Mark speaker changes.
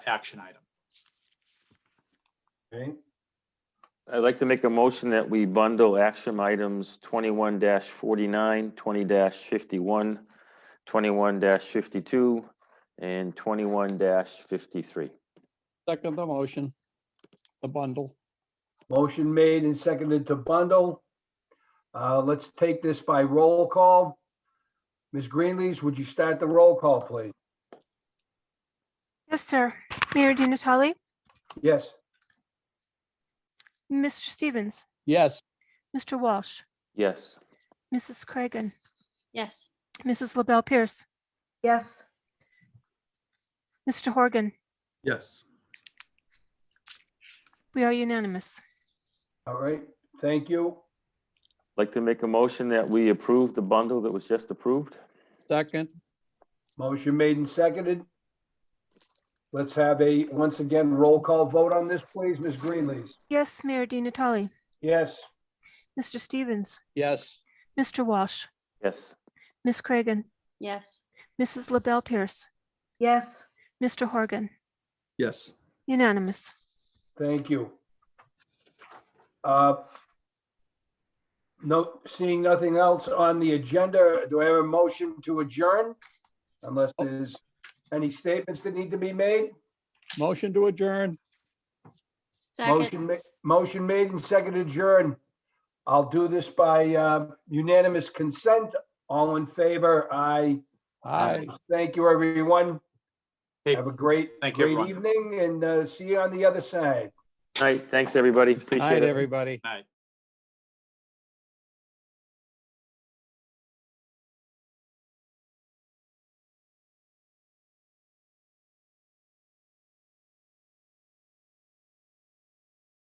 Speaker 1: action item.
Speaker 2: Okay,
Speaker 3: I'd like to make a motion that we bundle action items twenty-one 49 20 fifty-one, twenty-one fifty-two, and twenty-one fifty-three.
Speaker 4: Second the motion, the bundle.
Speaker 2: motion made and seconded to bundle. Uh, let's take this by roll call. Ms. Greenlees, would you start the roll call, please?
Speaker 5: Yes, sir. Mayor Di Natale,
Speaker 2: Yes,
Speaker 5: Mr. Stevens,
Speaker 4: Yes,
Speaker 5: Mr. Walsh,
Speaker 3: Yes,
Speaker 5: Mrs. Cragan,
Speaker 6: Yes.
Speaker 5: Mrs. LaBelle Pierce,
Speaker 7: yes,
Speaker 5: Mr. Horgan.
Speaker 1: Yes.
Speaker 5: We are unanimous.
Speaker 2: all right, thank you.
Speaker 3: I'd like to make a motion that we approve the bundle that was just approved.
Speaker 4: second,
Speaker 2: Motion made and seconded. Let's have a, once again, roll call vote on this, please, Ms. Greenlees.
Speaker 5: Yes, Mayor Di Natale,
Speaker 2: Yes,
Speaker 5: Mr. Stevens,
Speaker 4: yes,
Speaker 5: Mr. Walsh,
Speaker 3: Yes,
Speaker 5: Miss Cragan,
Speaker 6: Yes.
Speaker 5: Mrs. LaBelle Pierce,
Speaker 7: yes,
Speaker 5: Mr. Horgan.
Speaker 1: Yes.
Speaker 5: Unanimous.
Speaker 2: thank you. Uh, No, seeing nothing else on the agenda, do I have a motion to adjourn? Unless there's any statements that need to be made?
Speaker 4: motion to adjourn,
Speaker 2: Motion,
Speaker 6: Second.
Speaker 2: ma- motion made and seconded adjourn. I'll do this by uh, unanimous consent. All in favor, aye.
Speaker 4: aye.
Speaker 2: Thank you, everyone.
Speaker 1: Hey,
Speaker 2: Have a great,
Speaker 1: thank you,
Speaker 2: great
Speaker 1: everyone.
Speaker 2: evening and uh, see you on the other side.
Speaker 3: all right, thanks, everybody,
Speaker 4: Aye,
Speaker 3: appreciate it.
Speaker 4: everybody.
Speaker 1: Night.